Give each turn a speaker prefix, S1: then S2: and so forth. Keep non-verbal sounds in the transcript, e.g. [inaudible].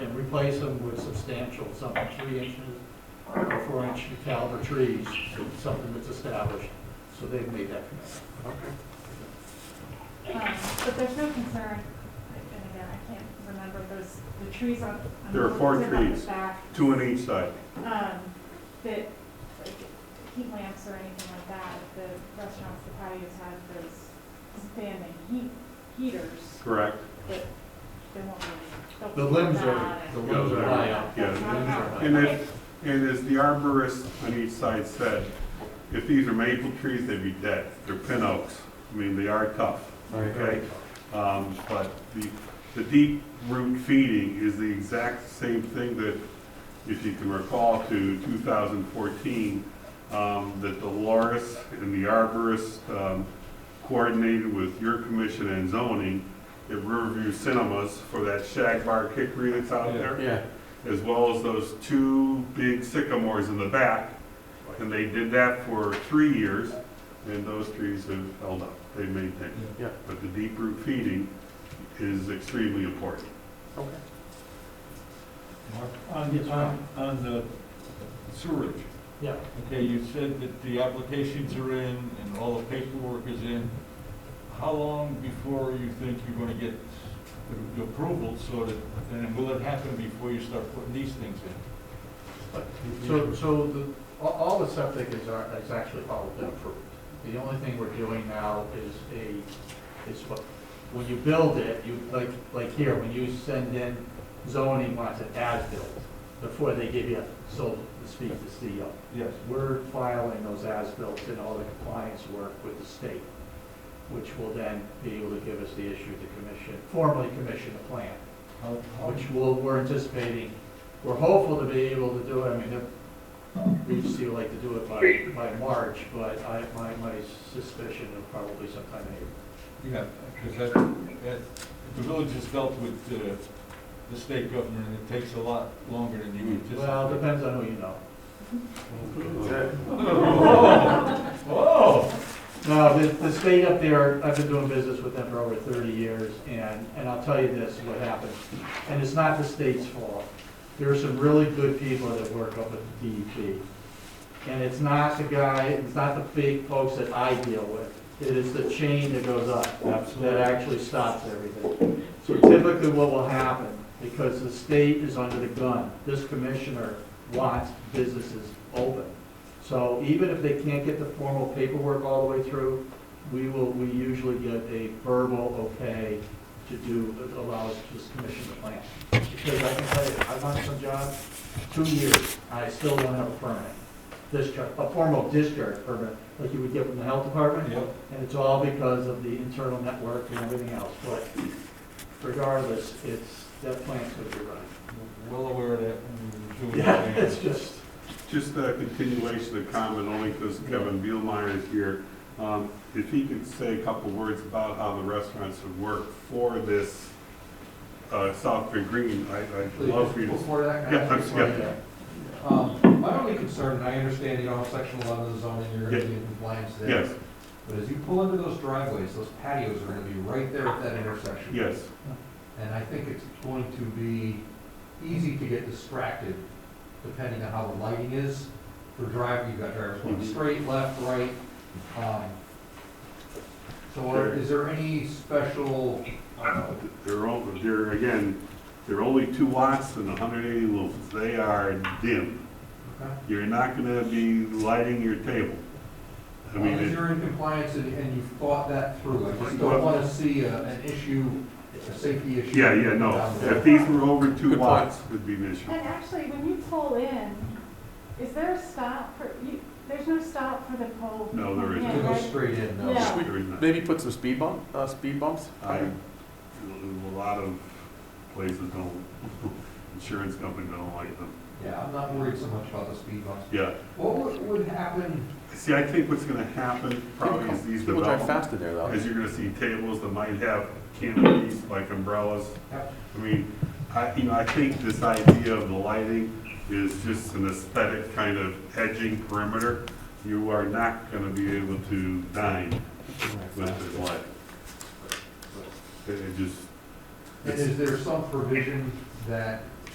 S1: replace them with substantial, something three inches or four inch caliber trees, something that's established, so they've made that commitment.
S2: Um, But there's no concern, and again, I can't remember, there's the trees on. on
S3: There are four
S2: the back-
S3: trees.
S2: Back,
S3: two on each side.
S2: um, that, like, heat lamps or anything like that, the restaurants, the patios have those standing heat, heaters
S3: Correct.
S2: that they won't really.
S1: The limbs are, the limbs are high up.
S3: Yeah,
S1: The limbs are high
S3: And
S1: up.
S3: if, and as the arborist on each side said, if these are maple trees, they'd be dead. They're pin oaks. I mean, they are tough, okay? Um, but the, the deep root feeding is the exact same thing that, if you can recall to 2014, um, that Dolores and the arborist, um, coordinated with your commission and zoning at Riverview Cinemas for that shag bar kickery that's out
S4: Yeah.
S3: there
S1: Yeah,
S3: as well as those two big sycamores in the back. And they did that for three years, and those trees have held up, they maintained.
S1: Yeah.
S3: But the deep root feeding is extremely important.
S1: okay.
S4: On,
S1: Yes, Ron.
S4: on, on the sewerage,
S1: Yeah,
S4: okay, you said that the applications are in and all the paperwork is in. How long before you think you're gonna get the- the approval so that, and will it happen before you start putting these things in?
S1: so, so the, all, all the septic is, are- is actually all been approved. The only thing we're doing now is a, is what, when you build it, you, like, like here, when you send in zoning wants it as-built before they give you, so to speak, the CO.
S4: Yes.
S1: We're filing those as-built and all the compliance work with the state, which will then be able to give us the issue to commission, formally commission a plan,
S4: How, how,
S1: which we'll, we're anticipating, we're hopeful to be able to do it, I mean, if- we just would like to do it by, by March, but I, my, my suspicion is probably sometime in April.
S4: yeah, because that, that, the village has dealt with, uh, the state government and it takes a lot longer than you anticipate.
S1: Well,
S4: [laughs]
S1: depends on who you know.
S4: Whoa!
S1: No, Uh, the, the state up there, I've been doing business with them for over thirty years, and, and I'll tell you this, what happened. And it's not the state's fault. There are some really good people that work up at DEP. And it's not the guy, it's not the big folks that I deal with. It is the chain that goes up, that
S4: Absolutely.
S1: actually stops everything. So typically what will happen, because the state is under the gun, this commissioner wants businesses open. So even if they can't get the formal paperwork all the way through, we will, we usually get a verbal okay to do, that allows this commission to plan. Because I can tell you, I've done some jobs, two years, I still don't have a permit. Discharge, a formal discharge permit, like you would get from the health department.
S4: Yep.
S1: And it's all because of the internal network and everything else, but regardless, it's, that plant's gonna be running.
S4: Well aware of that. when we were doing
S1: Yeah,
S4: the
S1: [laughs] it's
S4: plans.
S1: just,
S3: Just a continuation of comment, only because Kevin Bielmeyer is here. Um, If he could say a couple words about how the restaurants would work for this uh, South Bend Green, I- I'd love for you to
S5: Before that, can I
S3: Yeah,
S5: ask you a
S3: yeah.
S5: question? Um, My only concern, and I understand, you know, section eleven of the zoning, you're gonna be in compliance there.
S3: Yes.
S5: But as you pull into those driveways, those patios are gonna be right there at that intersection.
S3: Yes,
S5: And I think it's going to be easy to get distracted depending on how the lighting is. For driving, you've got drivers going
S3: Mhm.
S5: straight, left, right. um, So are- is there any special, uh,
S3: They're, on- they're, again, they're only two watts and hundred eighty lumens. They are dim.
S5: okay?
S3: You're not gonna be lighting your table. I mean,
S5: As
S3: it-
S5: you're in compliance and, and you've thought that through, I just don't wanna see a- an issue, a safety issue.
S3: yeah, yeah, no.
S5: down the
S3: If
S5: road.
S3: these were over two
S1: Good point.
S3: watts, it'd be an issue.
S2: And actually, when you pull in, is there a stop for, you, there's no stop for the pole?
S3: No, there isn't.
S5: To
S2: Yeah,
S5: go
S2: right?
S5: straight in, no.
S2: Yeah.
S3: There is not.
S6: Maybe put some speed bump, uh, speed bumps?
S3: I, a lot of places don't, [laughs] insurance companies don't like them.
S5: Yeah, I'm not worried so much about the speed bumps.
S3: Yeah.
S5: What would, would happen,
S3: See, I think what's gonna happen probably is these
S6: People drive
S3: developments,
S6: fast in there though.
S3: is you're gonna see tables that might have canopies like umbrellas.
S5: yep,
S3: I mean, I, you know, I think this idea of the lighting is just an aesthetic kind of edging perimeter. You are not gonna be able to dine with the lighting. It it just,
S5: and is there some provision that